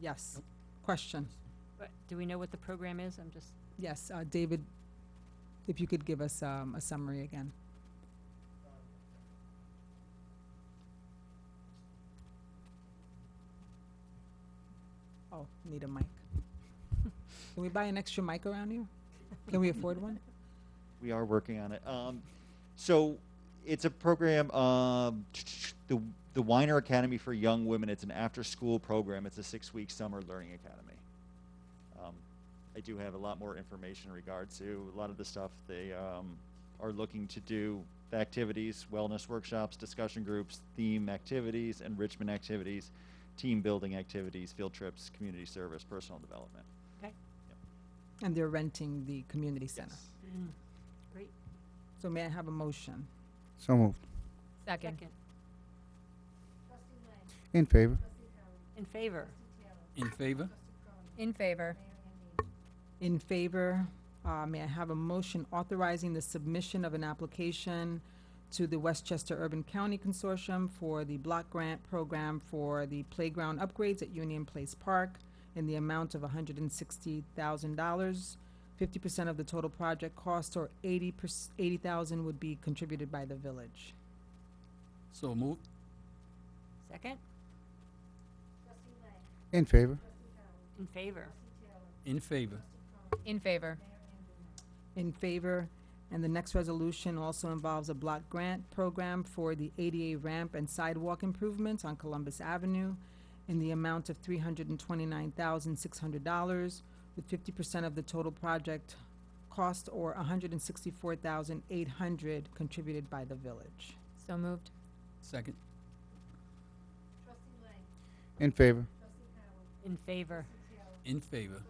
Yes. Question? But Do we know what the program is? I'm just, Yes, uh, David, if you could give us um, a summary again. Oh, need a mic. Can we buy an extra mic around here? Can we afford one? We are working on it. Um, so it's a program, um, the, the Weiner Academy for Young Women. It's an after school program, it's a six week summer learning academy. Um, I do have a lot more information in regard to a lot of the stuff they um, are looking to do the activities, wellness workshops, discussion groups, theme activities, enrichment activities, team building activities, field trips, community service, personal development. okay, And they're renting the community center. Yes. great. So may I have a motion? So moved. Second. In favor? In favor? In favor? In favor. In favor, uh, may I have a motion authorizing the submission of an application to the Westchester Urban County Consortium for the block grant program for the playground upgrades at Union Place Park in the amount of hundred and sixty thousand dollars. Fifty percent of the total project cost or eighty percent eighty thousand would be contributed by the village. So moved. Second? In favor? In favor? In favor? In favor. in favor. And the next resolution also involves a block grant program for the ADA ramp and sidewalk improvements on Columbus Avenue in the amount of three hundred and twenty-nine thousand, six hundred dollars, with fifty percent of the total project cost or $164,800 contributed by the village. So moved. Second. In favor? In favor? In favor?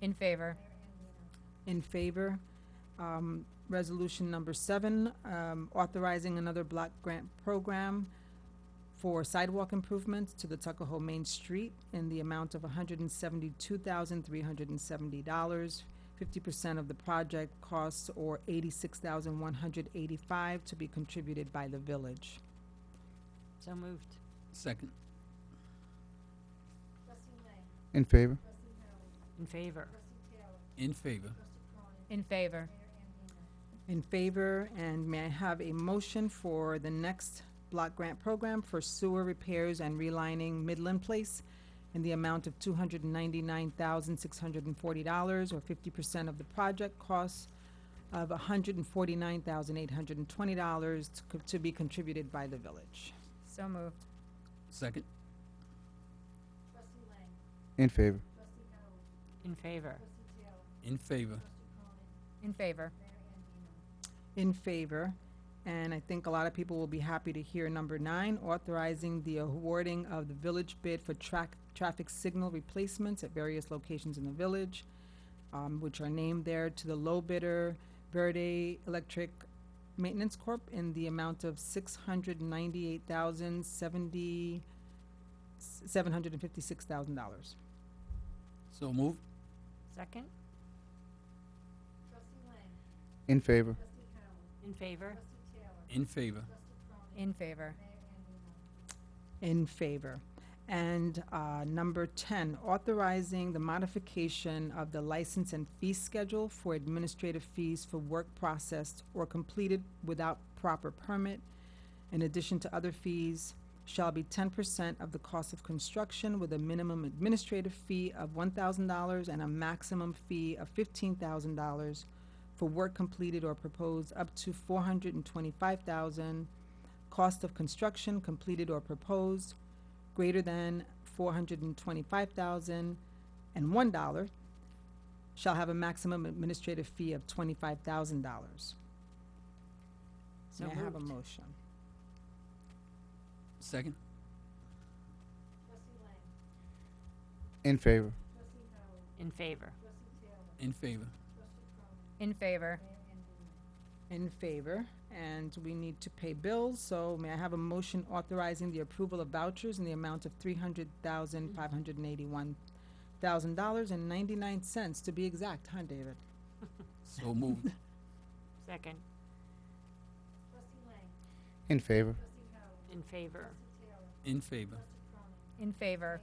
In favor. In favor. Um, Resolution number seven, um, authorizing another block grant program for sidewalk improvements to the Tuckahoe Main Street in the amount of $172,370. 50% of the project costs or $86,185 to be contributed by the village. So moved. Second. In favor? In favor? In favor? In favor. In favor, and may I have a motion for the next block grant program for sewer repairs and relining Midland Place in the amount of two hundred and ninety-nine thousand, six hundred and forty dollars, or fifty percent of the project costs of hundred and forty-nine thousand, eight hundred and twenty dollars to be contributed by the village. So moved. Second. In favor? In favor? In favor? In favor. in favor. And I think a lot of people will be happy to hear number nine, authorizing the awarding of the village bid for track, traffic signal replacements at various locations in the village, um, which are named there to the low bidder, Verde Electric Maintenance Corp. in the amount of six hundred ninety-eight thousand seventy, seven hundred and fifty-six thousand dollars. So moved. Second? In favor? In favor? In favor? In favor. In favor. And uh, number 10, authorizing the modification of the license and fee schedule for administrative fees for work processed or completed without proper permit, in addition to other fees, shall be 10% of the cost of construction with a minimum administrative fee of $1,000 and a maximum fee of $15,000 for work completed or proposed up to 425000 cost of construction completed or proposed greater than four hundred and twenty-five thousand and one dollar shall have a maximum administrative fee of twenty-five thousand dollars. So May I have a moved. motion? Second. In favor? In favor? In favor? In favor. In favor, and we need to pay bills, so may I have a motion authorizing the approval of vouchers in the amount of three hundred thousand, five hundred and eighty-one thousand dollars and ninety-nine cents to be exact, huh, David? So moved. Second? In favor? In favor? In favor? In favor.